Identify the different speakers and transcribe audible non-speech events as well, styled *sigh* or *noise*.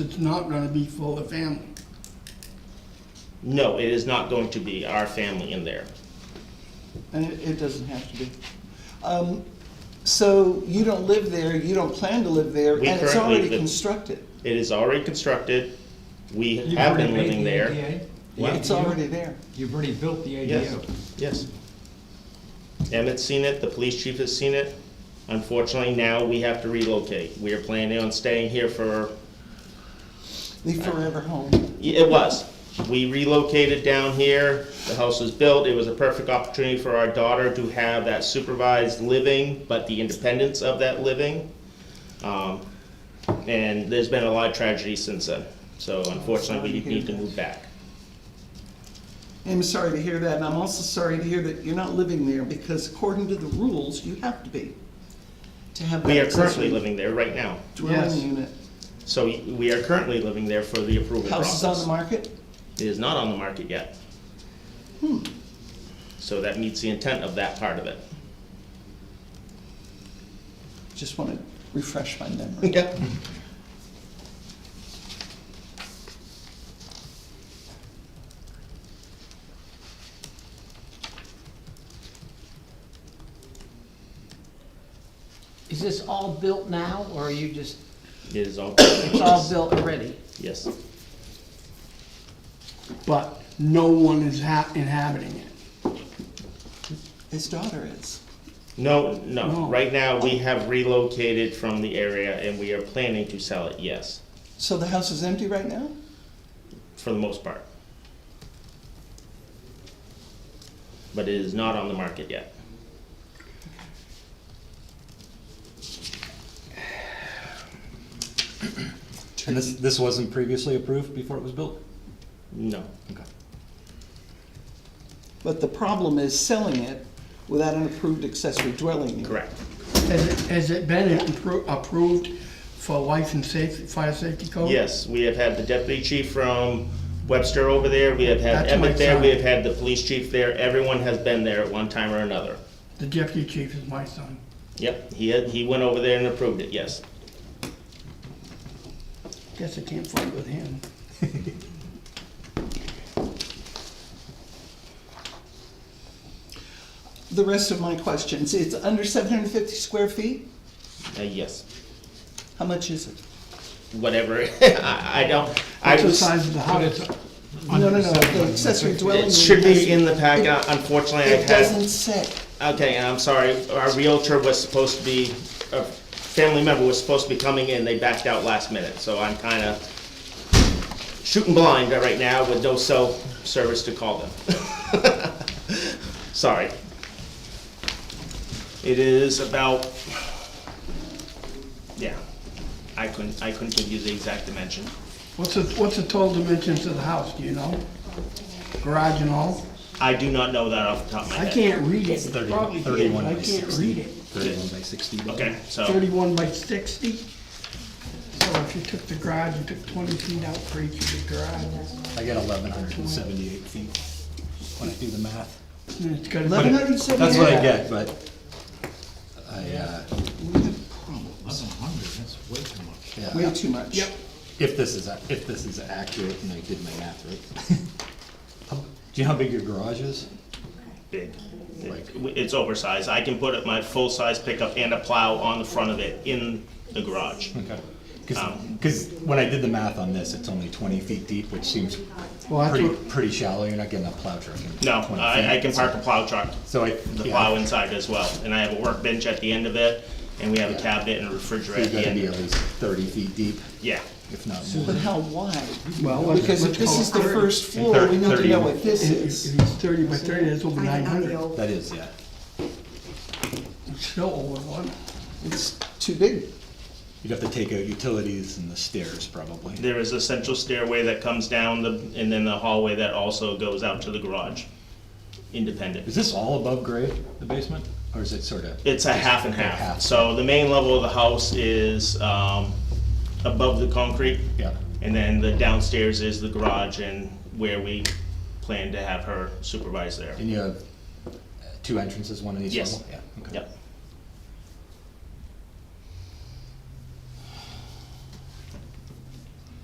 Speaker 1: it's not gonna be full of family.
Speaker 2: No, it is not going to be our family in there.
Speaker 3: And it, it doesn't have to be. Um, so you don't live there, you don't plan to live there,
Speaker 2: We
Speaker 3: and it's
Speaker 2: currently
Speaker 3: already
Speaker 2: live-
Speaker 3: constructed.
Speaker 2: It is already constructed. We have been living there.
Speaker 3: Yeah, It's already there.
Speaker 4: You've already built the
Speaker 2: Yes,
Speaker 4: ADU.
Speaker 2: yes. Emmett's seen it, the police chief has seen it. Unfortunately, now we have to relocate. We are planning on staying here for,
Speaker 3: The forever home.
Speaker 2: it was. We relocated down here, the house was built, it was a perfect opportunity for our daughter to have that supervised living, but the independence of that living. Um, And there's been a lot of tragedy since then, so unfortunately, we need to move back.
Speaker 3: I'm sorry to hear that, and I'm also sorry to hear that you're not living there, because according to the rules, you have to be, to have that
Speaker 2: We are currently
Speaker 3: accessory
Speaker 2: living there right now.
Speaker 3: dwelling
Speaker 1: Yes.
Speaker 3: unit.
Speaker 2: So we are currently living there for the approval
Speaker 3: House is on the
Speaker 2: process.
Speaker 3: market? Hmm.
Speaker 2: It is not on the market yet. So that meets the intent of that part of
Speaker 3: *laughs*
Speaker 2: it.
Speaker 3: Just want to refresh my memory.
Speaker 2: Yep.
Speaker 5: Is this all built now, or are you just,
Speaker 2: It is all,
Speaker 5: it's all built already?
Speaker 2: yes,
Speaker 1: But no one is ha- inhabiting it.
Speaker 3: His daughter is.
Speaker 2: no, no,
Speaker 1: No.
Speaker 2: right now, we have relocated from the area and we are planning to sell it, yes,
Speaker 3: So the house is empty right now?
Speaker 2: for the most part. But it is not on the market yet.
Speaker 6: And this, this wasn't previously approved before it was built?
Speaker 2: No,
Speaker 6: Okay.
Speaker 3: But the problem is selling it without an approved accessory dwelling unit.
Speaker 2: correct.
Speaker 1: Has it, has it been appro- approved for life and safety, fire safety code?
Speaker 2: Yes, we have had the deputy chief from Webster over there, we have had
Speaker 1: That's my
Speaker 2: Emmett there, we
Speaker 1: son.
Speaker 2: have had the police chief there, everyone has been there at one time or another.
Speaker 1: The deputy chief is my son.
Speaker 2: Yep, he had, he went over there and approved it, yes.
Speaker 1: Guess I can't fight with him.
Speaker 3: The rest of my questions, it's under seven hundred and fifty square feet?
Speaker 2: Uh, yes,
Speaker 3: How much is it?
Speaker 2: whatever, *laughs* I, I don't, I
Speaker 1: What's the
Speaker 2: was,
Speaker 1: size of the
Speaker 4: But
Speaker 1: house?
Speaker 4: it's
Speaker 3: No, no,
Speaker 4: under
Speaker 3: no,
Speaker 4: the
Speaker 3: the accessory
Speaker 2: it
Speaker 3: dwelling unit.
Speaker 2: should
Speaker 3: has-
Speaker 2: be in the packet, unfortunately, I
Speaker 3: It doesn't
Speaker 2: had,
Speaker 3: say.
Speaker 2: okay, and I'm sorry, our Realtor was supposed to be, a family member was supposed to be coming in, they backed out last minute, so I'm kinda shooting blind right now with no cell service to call them. *laughs* Sorry. It is about, yeah, I couldn't, I couldn't give you the exact dimension.
Speaker 1: What's the, what's the total dimensions of the house, do you know? Garage and all?
Speaker 2: I do not know that off the top of my
Speaker 1: I
Speaker 2: head.
Speaker 1: can't read it, It's
Speaker 6: Thirty-
Speaker 1: probably here, but
Speaker 6: Thirty-one
Speaker 1: I
Speaker 6: by
Speaker 1: can't
Speaker 6: sixty.
Speaker 1: read it.
Speaker 6: Thirty-one by sixty.
Speaker 2: Okay, so,
Speaker 1: Thirty-one by sixty? So if you took the garage, you took twenty feet out for each of the garages.
Speaker 6: I get eleven hundred and seventy-eight feet when I do the math.
Speaker 1: And it's got.
Speaker 3: Eleven hundred and seventy-eight?
Speaker 6: That's what I get, but I, uh,
Speaker 4: Eleven hundred, that's way too much.
Speaker 3: Way
Speaker 6: yeah,
Speaker 3: too much.
Speaker 1: Yep.
Speaker 6: if this is, ac- if this is accurate and I did my math right. *laughs* How- Do you know how big your garage is?
Speaker 2: big.
Speaker 6: Like-
Speaker 2: It's oversized. I can put my full-size pickup and a plow on the front of it in the garage.
Speaker 6: Okay. Cause,
Speaker 2: Um,
Speaker 6: 'cause when I did the math on this, it's only twenty feet deep, which seems
Speaker 1: Well, that's
Speaker 6: pretty,
Speaker 1: what-
Speaker 6: pretty shallow. You're not getting a plow truck in
Speaker 2: No,
Speaker 6: 20
Speaker 2: I, I
Speaker 6: feet.
Speaker 2: can park a plow truck,
Speaker 6: So I,
Speaker 2: the
Speaker 6: yeah.
Speaker 2: plow inside as well, and I have a workbench at the end of it, and we have a
Speaker 6: Yeah.
Speaker 2: cabinet and a
Speaker 6: You
Speaker 2: refrigerator at the
Speaker 6: gotta be
Speaker 2: end.
Speaker 6: at least thirty feet deep,
Speaker 2: Yeah,
Speaker 6: if not
Speaker 3: But
Speaker 6: more.
Speaker 3: how wide?
Speaker 1: Well, let's-
Speaker 3: Because
Speaker 1: let's
Speaker 3: if this
Speaker 1: call
Speaker 3: is the
Speaker 1: it thirty.
Speaker 3: first floor,
Speaker 6: thirty-
Speaker 3: we need to
Speaker 6: thirty.
Speaker 3: know what this
Speaker 1: If it's
Speaker 3: is.
Speaker 1: thirty by thirty, that's over nine hundred.
Speaker 6: That is, yeah.
Speaker 1: It's still over one.
Speaker 3: It's too big.
Speaker 6: You'd have to take out utilities and the stairs probably.
Speaker 2: there is a central stairway that comes down the, and then the hallway that also goes out to the garage,
Speaker 6: Is
Speaker 2: independent.
Speaker 6: this all above grade, the basement, or is it sort of?
Speaker 2: It's a half and half.
Speaker 6: Half.
Speaker 2: So the main level of the house is, um, above the concrete.
Speaker 6: Yeah,
Speaker 2: And then the downstairs is the garage and where we plan to have her supervise there.
Speaker 6: and you have uh, two entrances, one in each
Speaker 2: Yes.
Speaker 6: level? Yeah. okay.
Speaker 2: Yep.